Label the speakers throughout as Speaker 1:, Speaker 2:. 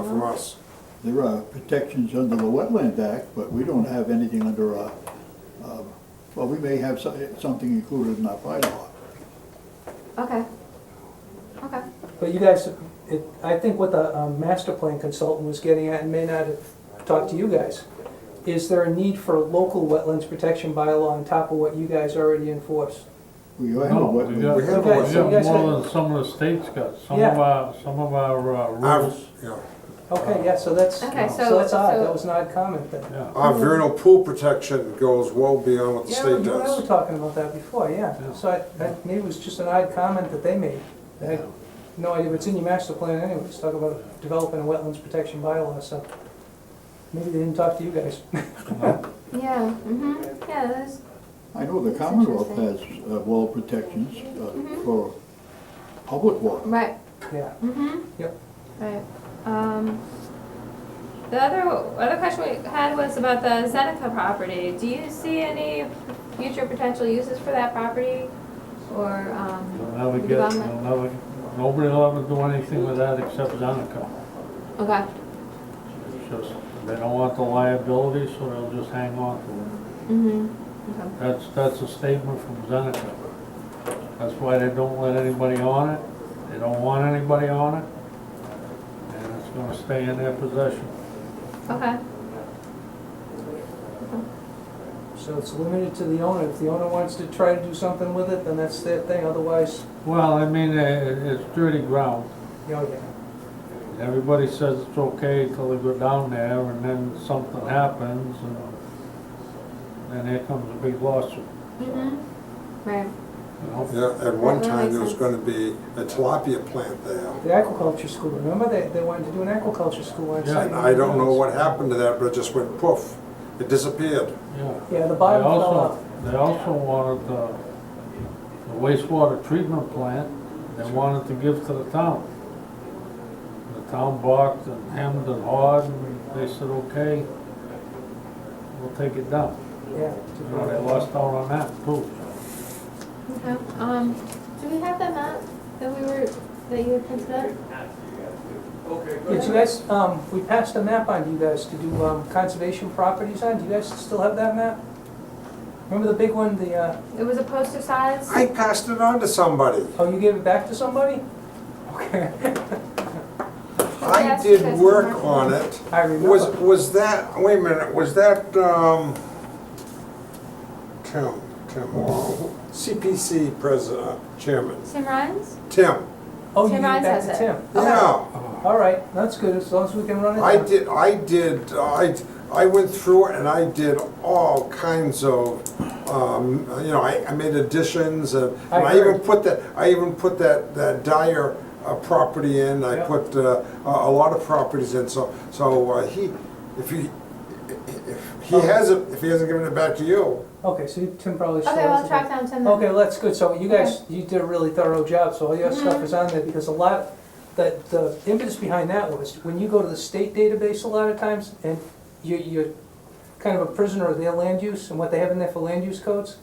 Speaker 1: for us.
Speaker 2: There are protections under the Wetland Act, but we don't have anything under our, um, well, we may have so- something included in our bylaw.
Speaker 1: Okay. Okay.
Speaker 3: But you guys, it, I think what the um, master plan consultant was getting at, and may not have talked to you guys, is there a need for a local wetlands protection bylaw on top of what you guys already enforce?
Speaker 2: We have a
Speaker 4: No, we
Speaker 2: wetland.
Speaker 4: got,
Speaker 1: We
Speaker 4: we
Speaker 1: have
Speaker 4: got
Speaker 1: a wetland.
Speaker 3: So you guys
Speaker 4: more
Speaker 3: had-
Speaker 4: than some of the states got, some
Speaker 3: Yeah.
Speaker 4: of our, some of our uh,
Speaker 5: Our,
Speaker 4: rules,
Speaker 5: you know,
Speaker 3: Okay, yeah, so that's,
Speaker 1: Okay,
Speaker 3: so that's odd,
Speaker 1: so-
Speaker 3: that was an odd comment then.
Speaker 4: yeah.
Speaker 5: our vernal pool protection goes well beyond what the
Speaker 3: Yeah, we
Speaker 5: state
Speaker 3: we were
Speaker 5: does.
Speaker 3: talking about that before, yeah,
Speaker 4: Yeah.
Speaker 3: so I, I, maybe it was just an odd comment that they made. I had no idea, but it's in your master plan anyways, talk about developing a wetlands protection bylaw, so maybe they didn't talk to you guys.
Speaker 1: Yeah. hmm Yeah. That's,
Speaker 2: I know the
Speaker 1: That's
Speaker 2: Commonwealth has
Speaker 1: interesting.
Speaker 2: uh, wall protections uh,
Speaker 1: Mhm.
Speaker 2: for public water.
Speaker 1: right.
Speaker 3: Yeah,
Speaker 1: Mm-hmm.
Speaker 3: Yep.
Speaker 1: Right. Um, the other other question we had was about the Zeneca property. Do you see any future potential uses for that property, or
Speaker 4: You'll
Speaker 1: um,
Speaker 4: never get, you'll never, nobody will ever do anything with that except Zeneca.
Speaker 1: okay.
Speaker 4: It's just, they don't want the liability, so they'll just hang on to it.
Speaker 1: Mm-hmm. Okay.
Speaker 4: That's, that's a statement from Zeneca. That's why they don't let anybody on it, they don't want anybody on it, and it's gonna stay in their possession.
Speaker 1: Okay.
Speaker 3: so it's limited to the owner, if the owner wants to try to do something with it, then that's their thing, otherwise,
Speaker 4: Well, I mean, eh, it's dirty ground.
Speaker 3: you know, yeah.
Speaker 4: Everybody says it's okay till they go down there and then something happens and then here comes a big lawsuit,
Speaker 1: Mm-hmm. Right.
Speaker 4: you know?
Speaker 5: Yeah, at one
Speaker 1: That
Speaker 5: time,
Speaker 1: makes
Speaker 5: there was
Speaker 1: sense.
Speaker 5: gonna be a tilapia plant there.
Speaker 3: The aquaculture school, remember, they, they wanted to do an aquaculture school on
Speaker 4: Yeah,
Speaker 3: site.
Speaker 5: And I don't know what happened to that, but it just went poof, it disappeared.
Speaker 4: Yeah.
Speaker 3: Yeah, the
Speaker 4: They
Speaker 3: bottom fell out.
Speaker 4: also, they also wanted the the wastewater treatment plant, they wanted to give to the town. The town balked and hemmed and hawed and they said, okay, we'll take it down.
Speaker 3: Yeah.
Speaker 4: You know, Oh, they lost out on that too.
Speaker 1: Okay. Um, do we have that map that we were that you had printed out?
Speaker 3: Did you guys, um, we passed a map on to you guys to do, um, conservation properties on, do you guys still have that map? Remember the big one, the, uh,
Speaker 1: It was a poster size.
Speaker 5: I passed it on to somebody.
Speaker 3: oh, you gave it back to somebody? Okay,
Speaker 5: I
Speaker 1: Oh, Yes, you guys
Speaker 5: did
Speaker 1: did
Speaker 5: work
Speaker 1: work on
Speaker 5: on it.
Speaker 3: I
Speaker 5: Was,
Speaker 3: remember.
Speaker 5: was that, wait a minute, was that, um, Tim, Tim, Wall, CPC president, chairman,
Speaker 1: Tim Ryan's.
Speaker 5: Tim,
Speaker 3: Oh, you
Speaker 1: Tim
Speaker 3: gave it back
Speaker 1: Ryan's
Speaker 3: to
Speaker 1: has
Speaker 3: Tim? Okay.
Speaker 5: yeah.
Speaker 3: All right, that's good, as long as we can run it
Speaker 5: I
Speaker 3: down.
Speaker 5: did, I did, I, I went through it and I did all kinds of, um, you know, I, I made additions and
Speaker 3: I
Speaker 5: and I even
Speaker 3: heard.
Speaker 5: put that, I even put that, that Dyer uh, property in, I
Speaker 3: Yep.
Speaker 5: put, uh, a, a lot of properties in, so, so uh, he, if he, if
Speaker 3: Oh.
Speaker 5: he hasn't, if he hasn't given it back to you,
Speaker 3: Okay, so you- Tim probably still
Speaker 1: Okay,
Speaker 3: has
Speaker 1: well,
Speaker 3: it.
Speaker 1: track down Tim. Then.
Speaker 3: Okay, well, that's good, so you guys, you did a really thorough job, so all your stuff is on there, because a lot, the, the impetus behind that was, when you go to the state database a lot of times, and you, you're kind of a prisoner of their land use and what they have in there for land use codes,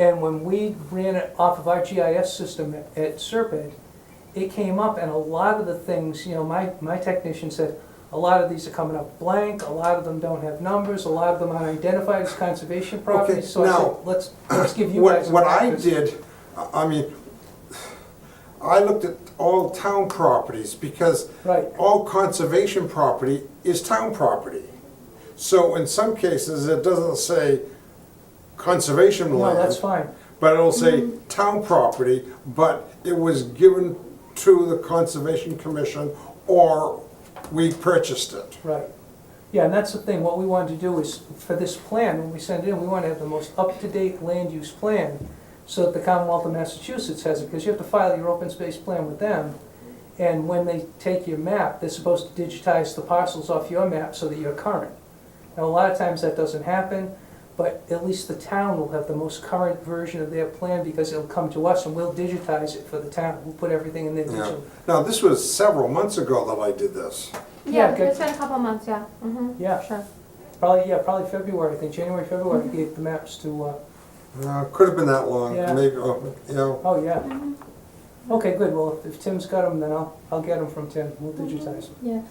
Speaker 3: and when we ran it off of our GIS system at- at Serpent, it came up, and a lot of the things, you know, my, my technician said, a lot of these are coming up blank, a lot of them don't have numbers, a lot of them are identified as conservation properties, so I said,
Speaker 5: now,
Speaker 3: let's, let's give you
Speaker 5: what,
Speaker 3: guys a
Speaker 5: what I
Speaker 3: practice.
Speaker 5: did, I I mean, I looked at all town properties because
Speaker 3: Right.
Speaker 5: all conservation property is town property. So in some cases, it doesn't say conservation
Speaker 3: No,
Speaker 5: land.
Speaker 3: that's fine. Mm-hmm.
Speaker 5: But it'll say town property, but it was given to the Conservation Commission or we purchased it.
Speaker 3: Right. Yeah, and that's the thing, what we want to do is, for this plan, when we send it in, we want to have the most up-to-date land use plan so that the Commonwealth of Massachusetts has it, because you have to file your open space plan with them. And when they take your map, they're supposed to digitize the parcels off your map so that you're current. Now, a lot of times that doesn't happen, but at least the town will have the most current version of their plan because it'll come to us and we'll digitize it for the town. We'll put everything in there.
Speaker 5: Yeah.
Speaker 3: digital.
Speaker 5: Now, this was several months ago that I did this.
Speaker 3: Yeah,
Speaker 1: Yeah,
Speaker 3: good.
Speaker 1: it's been a couple months. Yeah. Mm-hmm.
Speaker 3: Yeah.
Speaker 1: Sure.
Speaker 3: Probably, yeah, probably February, I think, January, February, we gave the maps to, uh,
Speaker 5: Uh, Could have been that long,
Speaker 3: Yeah.
Speaker 5: maybe, uh, you know.
Speaker 3: oh, yeah. Okay, good, well, if- if Tim's got them, then I'll, I'll get them from Tim, we'll digitize them.
Speaker 1: Yeah.